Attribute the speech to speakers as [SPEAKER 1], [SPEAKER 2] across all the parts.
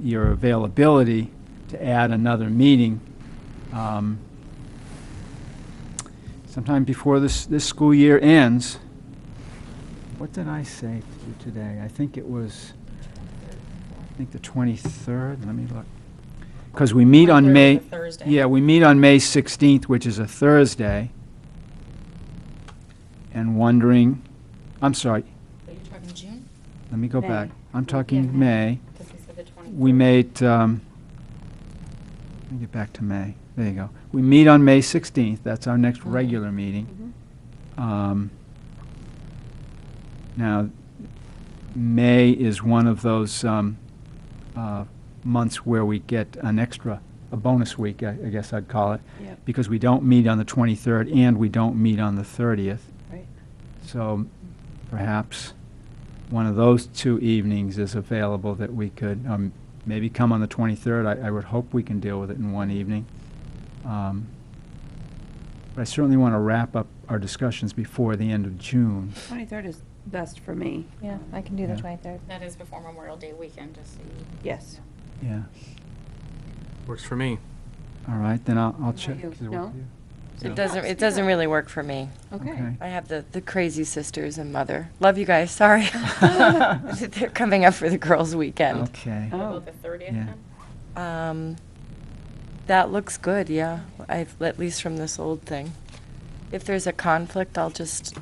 [SPEAKER 1] your availability to add another meeting. um, Sometime before this, this school year ends. What did I say to you today? I think it was, I think the 23rd, let me look. Because we meet on May.
[SPEAKER 2] Thursday.
[SPEAKER 1] Yeah, we meet on May 16th, which is a Thursday. And wondering, I'm sorry,
[SPEAKER 2] Are you talking June?
[SPEAKER 1] let me go
[SPEAKER 3] May.
[SPEAKER 1] back. I'm
[SPEAKER 3] Yeah,
[SPEAKER 1] talking May.
[SPEAKER 3] May.
[SPEAKER 2] Because we said the 23rd.
[SPEAKER 1] We made, um, let me get back to May. There you go. We meet on May 16th. That's our next
[SPEAKER 2] Mhm.
[SPEAKER 1] regular meeting. Um, Now, May is one of those um, uh, months where we get an extra, a bonus week, I I guess I'd call it,
[SPEAKER 3] Yep.
[SPEAKER 1] because we don't meet on the 23rd and we don't meet on the 30th.
[SPEAKER 3] Right.
[SPEAKER 1] So perhaps one of those two evenings is available that we could, um, maybe come on the 23rd. I I would hope we can deal with it in one evening. Um, But I certainly want to wrap up our discussions before the end of June.
[SPEAKER 3] 23rd is best for me.
[SPEAKER 4] Yeah, I can do the
[SPEAKER 1] Yeah.
[SPEAKER 4] 23rd.
[SPEAKER 2] That is before Memorial Day weekend, just so you.
[SPEAKER 3] Yes.
[SPEAKER 1] Yeah,
[SPEAKER 5] Works for me.
[SPEAKER 1] all right, then I'll I'll check.
[SPEAKER 3] about you?
[SPEAKER 1] Does it work
[SPEAKER 3] No?
[SPEAKER 1] for you?
[SPEAKER 6] It doesn't, it doesn't really work for me.
[SPEAKER 3] Okay.
[SPEAKER 1] Okay.
[SPEAKER 6] I have the, the crazy sisters and mother. Love you guys, sorry. They're coming up for the girls' weekend.
[SPEAKER 1] Okay.
[SPEAKER 3] Oh.
[SPEAKER 2] About the 30th
[SPEAKER 1] Yeah.
[SPEAKER 2] then?
[SPEAKER 6] Um, that looks good, yeah, I've, at least from this old thing. If there's a conflict, I'll just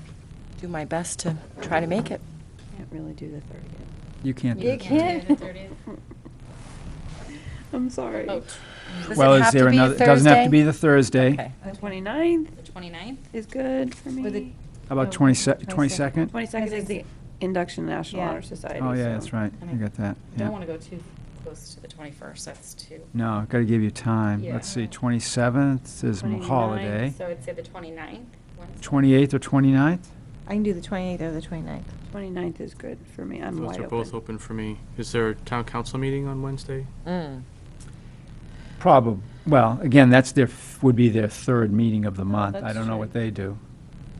[SPEAKER 6] do my best to try to make it.
[SPEAKER 3] Can't really do the
[SPEAKER 1] You can't do
[SPEAKER 4] You
[SPEAKER 1] it.
[SPEAKER 4] can't.
[SPEAKER 2] do the 30th?
[SPEAKER 3] 30th. I'm sorry.
[SPEAKER 4] Oh.
[SPEAKER 2] About
[SPEAKER 6] Does
[SPEAKER 1] Well,
[SPEAKER 6] it
[SPEAKER 1] is
[SPEAKER 6] have to
[SPEAKER 1] there
[SPEAKER 6] be a
[SPEAKER 1] another? It Doesn't have to
[SPEAKER 6] Thursday?
[SPEAKER 1] be the Thursday.
[SPEAKER 6] Okay.
[SPEAKER 3] The 29th
[SPEAKER 2] the 29th?
[SPEAKER 3] is good for
[SPEAKER 4] With the-
[SPEAKER 3] me.
[SPEAKER 1] How about
[SPEAKER 4] Oh,
[SPEAKER 1] 20
[SPEAKER 4] 22nd.
[SPEAKER 1] 22nd?
[SPEAKER 3] 22nd is the induction to National
[SPEAKER 4] Yeah.
[SPEAKER 3] Honor Society.
[SPEAKER 1] Oh, yeah,
[SPEAKER 3] so-
[SPEAKER 1] that's right,
[SPEAKER 2] And
[SPEAKER 1] you got that, yeah.
[SPEAKER 2] Don't want to go too close to the 21st, that's too.
[SPEAKER 1] No, gotta give you time.
[SPEAKER 2] Yeah.
[SPEAKER 1] Let's see, 27th is a
[SPEAKER 3] 29th.
[SPEAKER 1] holiday.
[SPEAKER 2] So I'd say the 29th, Wednesday.
[SPEAKER 1] 28th or 29th?
[SPEAKER 4] I can do the 28th or the 29th.
[SPEAKER 3] 29th is good for me. I'm
[SPEAKER 5] Those
[SPEAKER 3] wide
[SPEAKER 5] are both
[SPEAKER 3] open.
[SPEAKER 5] open for me. Is there a town council meeting on Wednesday?
[SPEAKER 6] Mm.
[SPEAKER 1] Probably, well, again, that's their, f- would be their third meeting of the month. I
[SPEAKER 3] Oh, that's
[SPEAKER 1] don't know
[SPEAKER 3] true.
[SPEAKER 1] what they do.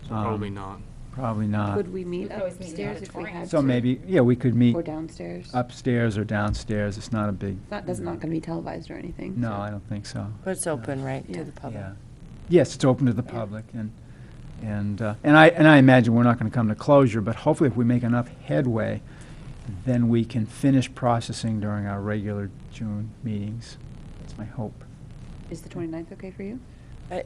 [SPEAKER 5] So
[SPEAKER 1] Um,
[SPEAKER 5] Probably not.
[SPEAKER 1] Probably not.
[SPEAKER 3] Could
[SPEAKER 2] We
[SPEAKER 3] we meet
[SPEAKER 2] could always meet in the
[SPEAKER 3] upstairs if we
[SPEAKER 2] auditorium.
[SPEAKER 3] had to?
[SPEAKER 1] So maybe, yeah, we could meet
[SPEAKER 3] Or downstairs?
[SPEAKER 1] upstairs or downstairs, it's not a big,
[SPEAKER 3] It's not, that's not going to be televised or anything.
[SPEAKER 1] no,
[SPEAKER 3] so-
[SPEAKER 1] I don't think so.
[SPEAKER 6] But it's open, right,
[SPEAKER 3] Yeah.
[SPEAKER 6] to the public?
[SPEAKER 1] Yeah. Yes, it's open to the public, and, and, uh, and I, and I imagine we're not gonna come to closure, but hopefully if we make enough headway, then we can finish processing during our regular June meetings. That's my hope.
[SPEAKER 3] Is the 29th okay for you?
[SPEAKER 6] I,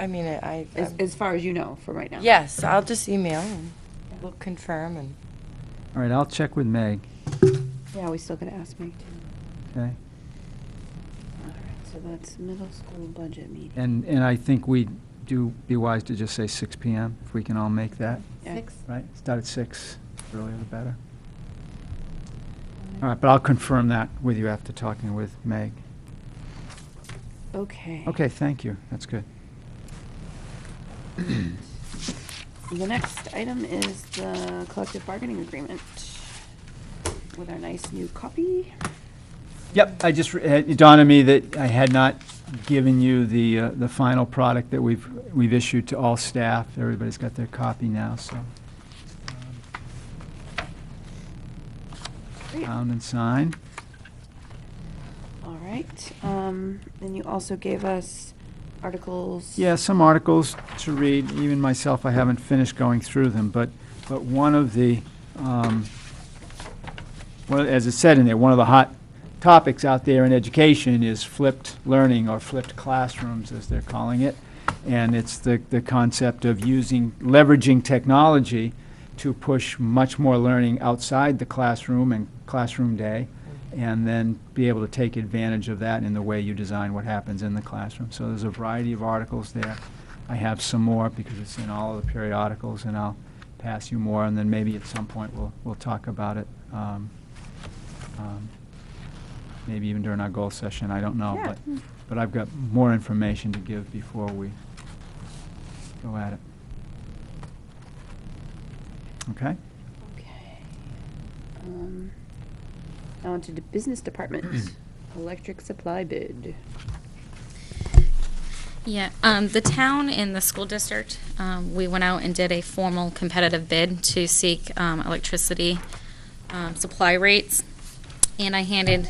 [SPEAKER 6] I mean, I. I-
[SPEAKER 3] As, as far as you know from right now?
[SPEAKER 6] Yes, I'll just email and we'll confirm and.
[SPEAKER 1] All right, I'll check with Meg,
[SPEAKER 3] Yeah, we still got to ask Meg too.
[SPEAKER 1] okay?
[SPEAKER 3] All right, so that's middle school budget meeting.
[SPEAKER 1] And, and I think we do be wise to just say six PM, if we can all make that,
[SPEAKER 3] Yeah.
[SPEAKER 1] right? Start at six, earlier the better. All right, but I'll confirm that with you after talking with Meg.
[SPEAKER 3] Okay.
[SPEAKER 1] Okay, thank you, that's good.
[SPEAKER 3] The next item is the collective bargaining agreement with our nice new copy.
[SPEAKER 1] Yep, I just, re- it dawned on me that I had not given you the, uh, the final product that we've, we've issued to all staff. Everybody's got their copy now, so. um,
[SPEAKER 3] Great.
[SPEAKER 1] Bound and signed.
[SPEAKER 3] All right. Um, then you also gave us articles.
[SPEAKER 1] Yeah, some articles to read, even myself, I haven't finished going through them, but, but one of the, um, well, as it said in there, one of the hot topics out there in education is flipped learning or flipped classrooms, as they're calling it. And it's the, the concept of using, leveraging technology to push much more learning outside the classroom and classroom day, and then be able to take advantage of that in the way you design what happens in the classroom. So there's a variety of articles there. I have some more because it's in all of the periodicals, and I'll pass you more, and then maybe at some point we'll, we'll talk about it. um, um, Maybe even during our goal session, I don't know,
[SPEAKER 3] Yeah.
[SPEAKER 1] but, but I've got more information to give before we go at it. Okay?
[SPEAKER 3] Okay. Um, now onto the business department, electric supply bid.
[SPEAKER 7] Yeah, um, the town and the school district, um, we went out and did a formal competitive bid to seek, um, electricity, um, supply rates. And I handed